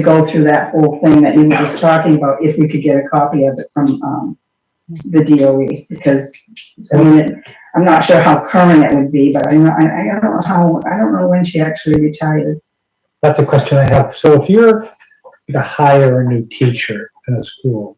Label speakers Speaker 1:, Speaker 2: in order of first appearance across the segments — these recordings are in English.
Speaker 1: to go through that whole thing that you were just talking about, if we could get a copy of it from, um, the DOE, because, I mean, it- I'm not sure how current it would be, but I know, I, I don't know how, I don't know when she actually retired.
Speaker 2: That's a question I have. So if you're to hire a new teacher in a school,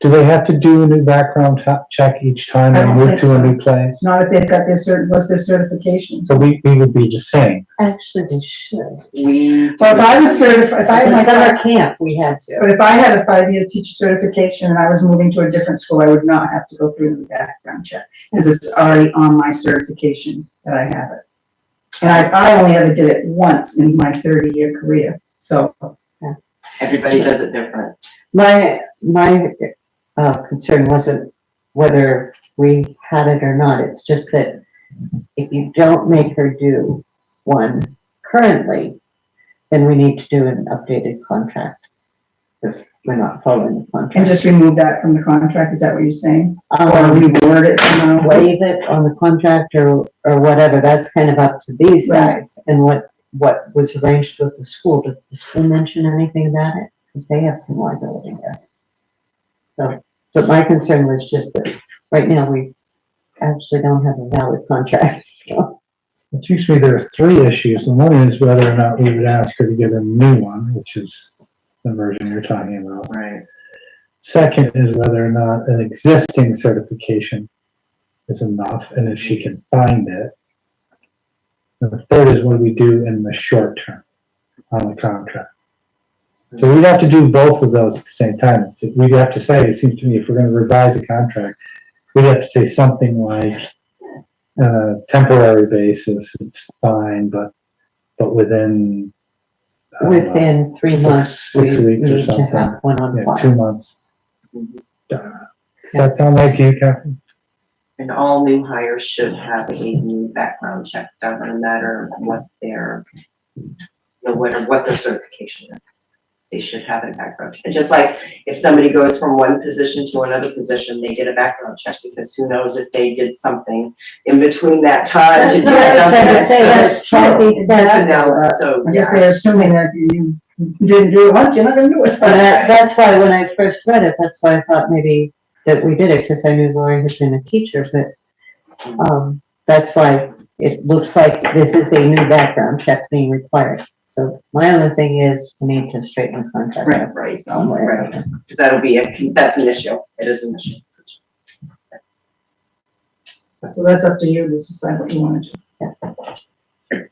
Speaker 2: do they have to do a new background ta- check each time
Speaker 1: I
Speaker 2: they
Speaker 1: don't
Speaker 2: move
Speaker 1: think
Speaker 2: to
Speaker 1: so.
Speaker 2: a new place?
Speaker 1: It's not if they've got their cert, what's their certification.
Speaker 2: So we, we would be the same.
Speaker 3: Actually, they should.
Speaker 4: We.
Speaker 1: Well, if I was certified, if I had
Speaker 3: In
Speaker 1: my
Speaker 3: summer camp, we had to.
Speaker 1: But if I had a five-year teacher certification and I was moving to a different school, I would not have to go through the background check, because it's already on my certification that I have it. And I, I only ever did it once in my thirty-year career, so,
Speaker 4: Everybody does it different.
Speaker 3: My, my, uh, concern wasn't whether we had it or not, it's just that if you don't make her do one currently, then we need to do an updated contract. Because we're not following the
Speaker 1: and
Speaker 3: contract.
Speaker 1: just remove that from the contract, is that what you're saying? Or
Speaker 3: Um,
Speaker 1: reword it somehow?
Speaker 3: waive it on the contract or, or whatever, that's kind of up to these
Speaker 1: Right.
Speaker 3: guys. And what, what was arranged with the school, did the school mention anything about it? Because they have some liability there. So, but my concern was just that, right now, we actually don't have a valid contract, so.
Speaker 2: It seems to me there are three issues, and one is whether or not we would ask her to get a new one, which is the version you're talking about.
Speaker 4: Right.
Speaker 2: Second is whether or not an existing certification is enough, and if she can find it. And the third is what we do in the short term on the contract. So we'd have to do both of those at the same time. It's- We'd have to say, it seems to me, if we're gonna revise the contract, we'd have to say something like, uh, temporary basis, it's fine, but, but within, I don't know,
Speaker 3: Within three
Speaker 2: Uh, Six-
Speaker 3: months, we
Speaker 2: six weeks or
Speaker 3: need to
Speaker 2: something.
Speaker 3: have one on
Speaker 2: yeah,
Speaker 3: file.
Speaker 2: two months.
Speaker 4: Mhm.
Speaker 2: Uh, Does that sound like you, Captain?
Speaker 4: And all new hires should have a new background check, done, no matter what their, no matter what their certification is. They should have a background. check. And just like if somebody goes from one position to another position, they get a background check because who knows if they did something in between that time to do
Speaker 3: That's
Speaker 4: something.
Speaker 3: what I was trying to say,
Speaker 4: that's
Speaker 3: let's try
Speaker 4: true.
Speaker 3: these out.
Speaker 4: You know, So,
Speaker 1: I guess
Speaker 4: yeah,
Speaker 1: they're assuming that you didn't do it once, you're not gonna do it.
Speaker 3: But that- that's why when I first read it, that's why I thought maybe that we did it, because I knew Lori had been a teacher, but, um, that's why it looks like this is a new background check being required. So my only thing is, we need to straighten the contract out
Speaker 4: right, right,
Speaker 3: somewhere.
Speaker 4: right. Because that'll be, a that's an issue. It is an issue.
Speaker 1: Well, that's up to you to decide what you wanna do.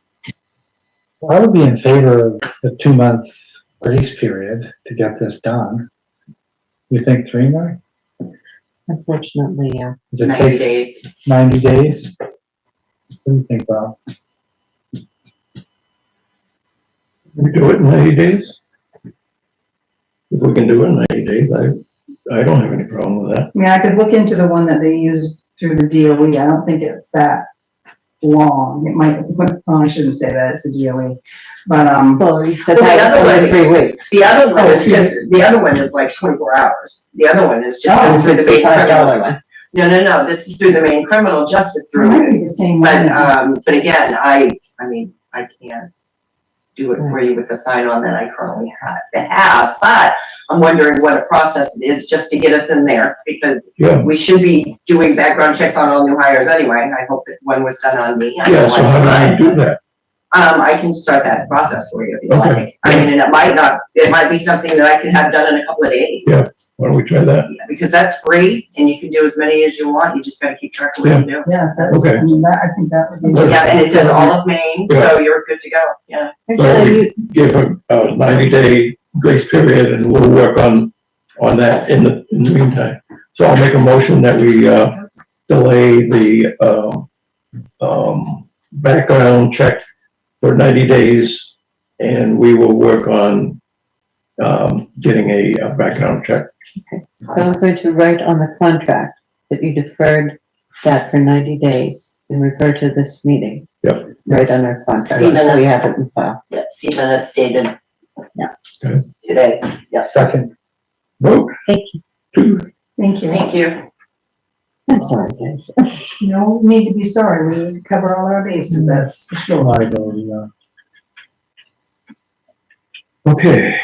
Speaker 2: Well, I would be in favor of the two-month grace period to get this done. You think three more?
Speaker 3: Unfortunately, yeah.
Speaker 2: Does it
Speaker 4: Ninety
Speaker 2: take
Speaker 4: days.
Speaker 2: ninety days? What do you think, Bob?
Speaker 5: We do it in ninety days? If we can do it in ninety days, I, I don't have any problem with that.
Speaker 1: I mean, I could look into the one that they used through the DOE, I don't think it's that long, it might, well, I shouldn't say that, it's the DOE, E, but, um,
Speaker 3: Well, you said
Speaker 4: Well, the
Speaker 3: that was
Speaker 4: other
Speaker 3: only
Speaker 4: way-
Speaker 3: three weeks.
Speaker 4: The other one
Speaker 1: Oh,
Speaker 4: is
Speaker 1: excuse
Speaker 4: just, the other one is like twenty-four hours. The other one is just
Speaker 1: Oh,
Speaker 4: going through the main
Speaker 3: Five dollar
Speaker 4: criminal.
Speaker 3: one.
Speaker 4: No, no, no, this is through the main criminal justice
Speaker 1: it might
Speaker 4: through.
Speaker 1: be the same
Speaker 4: But,
Speaker 1: one.
Speaker 4: um, but again, I, I mean, I can't do it for you with the sign-on that I currently have, have, but I'm wondering what a process it is just to get us in there, because
Speaker 5: Yeah,
Speaker 4: we should be doing background checks on all new hires anyway. I hope that one was done on me.
Speaker 5: yeah, so how do we do that?
Speaker 4: Um, I can start that process for you if you
Speaker 5: Okay.
Speaker 4: like. I mean, and it might not, it might be something that I can have done in a couple of days.
Speaker 5: Yeah. Why don't we try that?
Speaker 4: Yeah, Because that's free and you can do as many as you want. You just gotta keep track of what you do.
Speaker 1: Yeah, that's, I
Speaker 5: okay.
Speaker 1: mean, that, I think that would be.
Speaker 5: Okay.
Speaker 4: Yeah, and it does all of Maine, so you're good to go. Yeah.
Speaker 5: So
Speaker 3: Actually,
Speaker 5: we
Speaker 3: you-
Speaker 5: give a a ninety day grace period and we'll work on, on that in the, in the meantime. So I'll make a motion that we, uh, delay the, um, um, background check for ninety days and we will work on, um, getting a, a background check.
Speaker 3: So I'm going to write on the contract that you deferred that for ninety days and refer to this meeting.
Speaker 5: Yep.
Speaker 3: Right on our contract,
Speaker 4: See, now
Speaker 3: so we
Speaker 4: that's-
Speaker 3: have it in file.
Speaker 4: Yep, see, that's dated.
Speaker 3: Yeah.
Speaker 5: Okay.
Speaker 4: Today.
Speaker 2: Second,
Speaker 5: Vote.
Speaker 3: Thank
Speaker 5: you. Two,
Speaker 1: Thank you.
Speaker 4: Thank you.
Speaker 3: I'm sorry, guys.
Speaker 1: No need to be sorry, we cover all our bases, that's for sure.
Speaker 2: liability, uh,
Speaker 5: okay,